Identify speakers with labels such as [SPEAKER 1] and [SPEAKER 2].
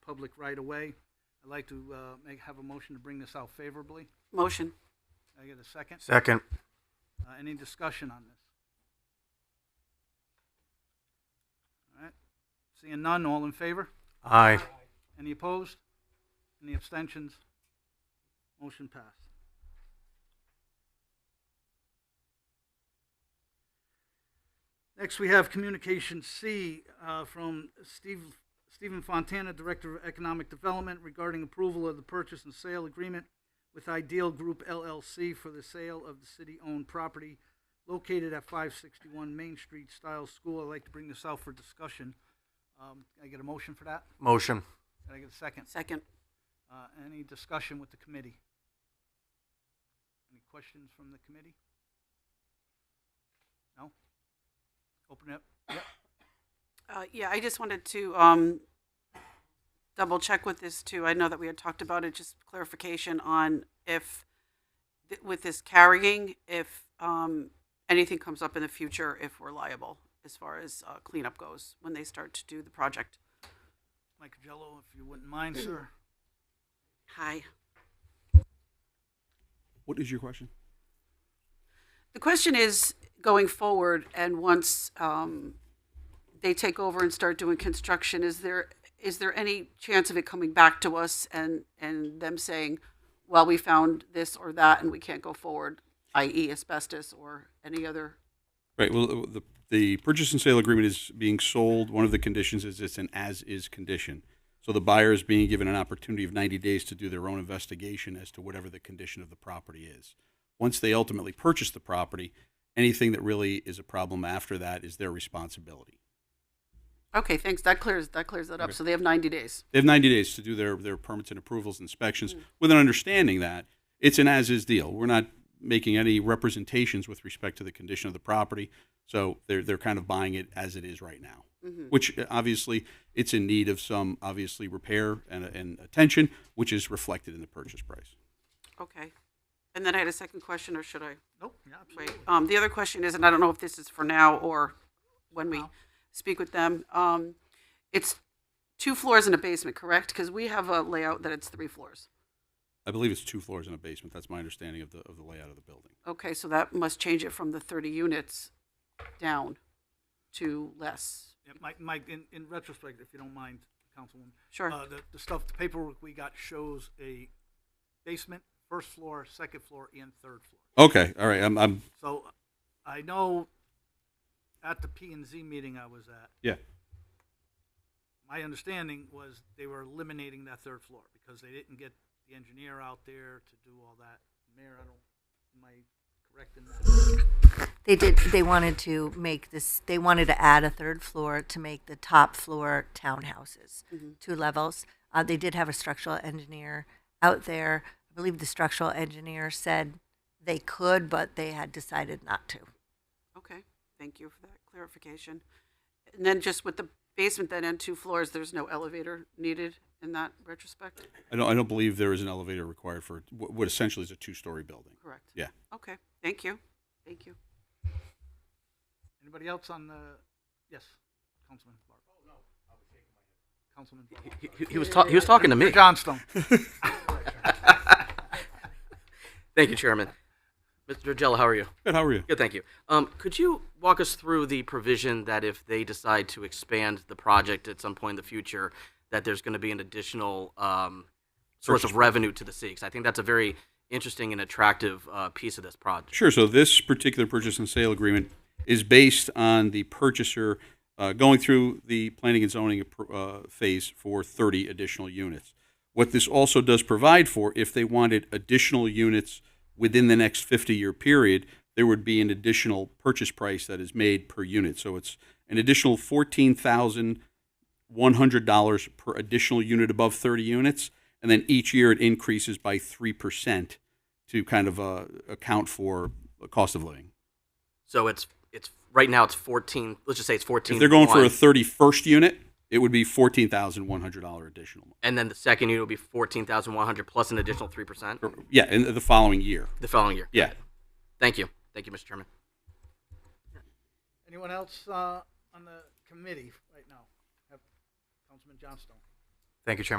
[SPEAKER 1] public right of way. I'd like to uh, make, have a motion to bring this out favorably.
[SPEAKER 2] Motion.
[SPEAKER 1] Can I get a second?
[SPEAKER 3] Second.
[SPEAKER 1] Uh, Any discussion on this? All right, seeing none, all in favor?
[SPEAKER 3] Aye.
[SPEAKER 1] Any opposed? Any abstentions? Motion passed. Next, we have Communication C uh, from Steve Stephen Fontana, Director of Economic Development, regarding approval of the purchase and sale agreement with Ideal Group LLC for the sale of the city-owned property located at 561 Main Street, Stiles School. I'd like to bring this out for discussion. Um, Can I get a motion for that?
[SPEAKER 3] Motion.
[SPEAKER 1] Can I get a second?
[SPEAKER 2] Second.
[SPEAKER 1] Uh, Any discussion with the committee? Any questions from the committee? No? Open it up. Yep.
[SPEAKER 2] Uh, yeah, I just wanted to, um, double check with this too. I know that we had talked about it, just clarification on if, th- with this carrying, if, um, anything comes up in the future, if we're liable as far as uh, cleanup goes, when they start to do the project.
[SPEAKER 1] Mike Jello, if you wouldn't mind, sir.
[SPEAKER 2] Hi.
[SPEAKER 4] What is your question?
[SPEAKER 2] The question is going forward and once um, they take over and start doing construction, is there, is there any chance of it coming back to us and, and them saying, well, we found this or that and we can't go forward, i.e. asbestos or any other?
[SPEAKER 4] Right, well, uh, the, the purchase and sale agreement is being sold. One of the conditions is it's an as-is condition. So the buyer is being given an opportunity of 90 days to do their own investigation as to whatever the condition of the property is. Once they ultimately purchase the property, anything that really is a problem after that is their responsibility.
[SPEAKER 2] Okay, thanks. That clears, that clears that up. So they have 90 days.
[SPEAKER 4] They have 90 days to do their, their permits and approvals, inspections, with an understanding that it's an as-is deal. We're not making any representations with respect to the condition of the property. So they're, they're kind of buying it as it is right now, which uh, obviously it's in need of some obviously repair and, and attention, which is reflected in the purchase price.
[SPEAKER 2] Okay. And then I had a second question, or should I?
[SPEAKER 1] Nope, yeah, absolutely.
[SPEAKER 2] Right. Um, the other question is, and I don't know if this is for now or when we
[SPEAKER 1] Now.
[SPEAKER 2] speak with them, um, it's two floors and a basement, correct? Because we have a layout that it's three floors.
[SPEAKER 4] I believe it's two floors and a basement. That's my understanding of the, of the layout of the building.
[SPEAKER 2] Okay, so that must change it from the thirty units down to less.
[SPEAKER 1] Yeah, Mike, Mike, in, in retrospect, if you don't mind, Councilwoman.
[SPEAKER 2] Sure.
[SPEAKER 1] uh, The, the stuff, the paperwork we got shows a basement, first floor, second floor, and third floor.
[SPEAKER 4] Okay, all right, I'm, I'm,
[SPEAKER 1] So I know at the P and Z meeting I was at,
[SPEAKER 4] yeah.
[SPEAKER 1] my understanding was they were eliminating that third floor because they didn't get the engineer out there to do all that. Mayor, I don't, am I correct in that?
[SPEAKER 5] They did, they wanted to make this, they wanted to add a third floor to make the top floor townhouses, two levels. Uh, they did have a structural engineer out there. I believe the structural engineer said they could, but they had decided not to.
[SPEAKER 2] Okay, thank you for that clarification. And then just with the basement then and two floors, there's no elevator needed in that retrospect?
[SPEAKER 4] I don't, I don't believe there is an elevator required for what what essentially is a two-story building.
[SPEAKER 2] Correct.
[SPEAKER 4] Yeah.
[SPEAKER 2] Okay, thank you. Thank you.
[SPEAKER 1] Anybody else on the, yes, Councilman Clark? Oh, no, I was shaking my head. Councilman
[SPEAKER 6] He- He was, ta- he was talking to me.
[SPEAKER 1] Clark. Johnstone.
[SPEAKER 6] Thank you, Chairman. Mr. Jello, how are you?
[SPEAKER 4] Good, how are you?
[SPEAKER 6] Good, thank you. Um, could you walk us through the provision that if they decide to expand the project at some point in the future, that there's going to be an additional um, source
[SPEAKER 4] Purchase
[SPEAKER 6] of revenue to the city? 'Cause I think that's a very interesting and attractive uh, piece of this project.
[SPEAKER 4] Sure. So this particular purchase and sale agreement is based on the purchaser uh, going through the planning and zoning appro- uh, phase for 30 additional units. What this also does provide for, if they wanted additional units within the next 50-year period, there would be an additional purchase price that is made per unit. So it's an additional 14,000 $100 per additional unit above 30 units, and then each year it increases by 3% to kind of uh, account for the cost of living.
[SPEAKER 6] So it's it's right now it's 14. Let's just say it's 14.
[SPEAKER 4] If they're going for a
[SPEAKER 6] one,
[SPEAKER 4] 31st unit, it would be $14,100 additional.
[SPEAKER 6] and then the second unit will be 14,100 plus an additional three percent
[SPEAKER 4] Or- Yeah, in the following year.
[SPEAKER 6] the following year.
[SPEAKER 4] Yeah.
[SPEAKER 6] Thank you. Thank you, Mr. Chairman.
[SPEAKER 1] Anyone else uh, on the committee right now? Have- Councilman Johnstone.
[SPEAKER 3] Thank you, Chairman.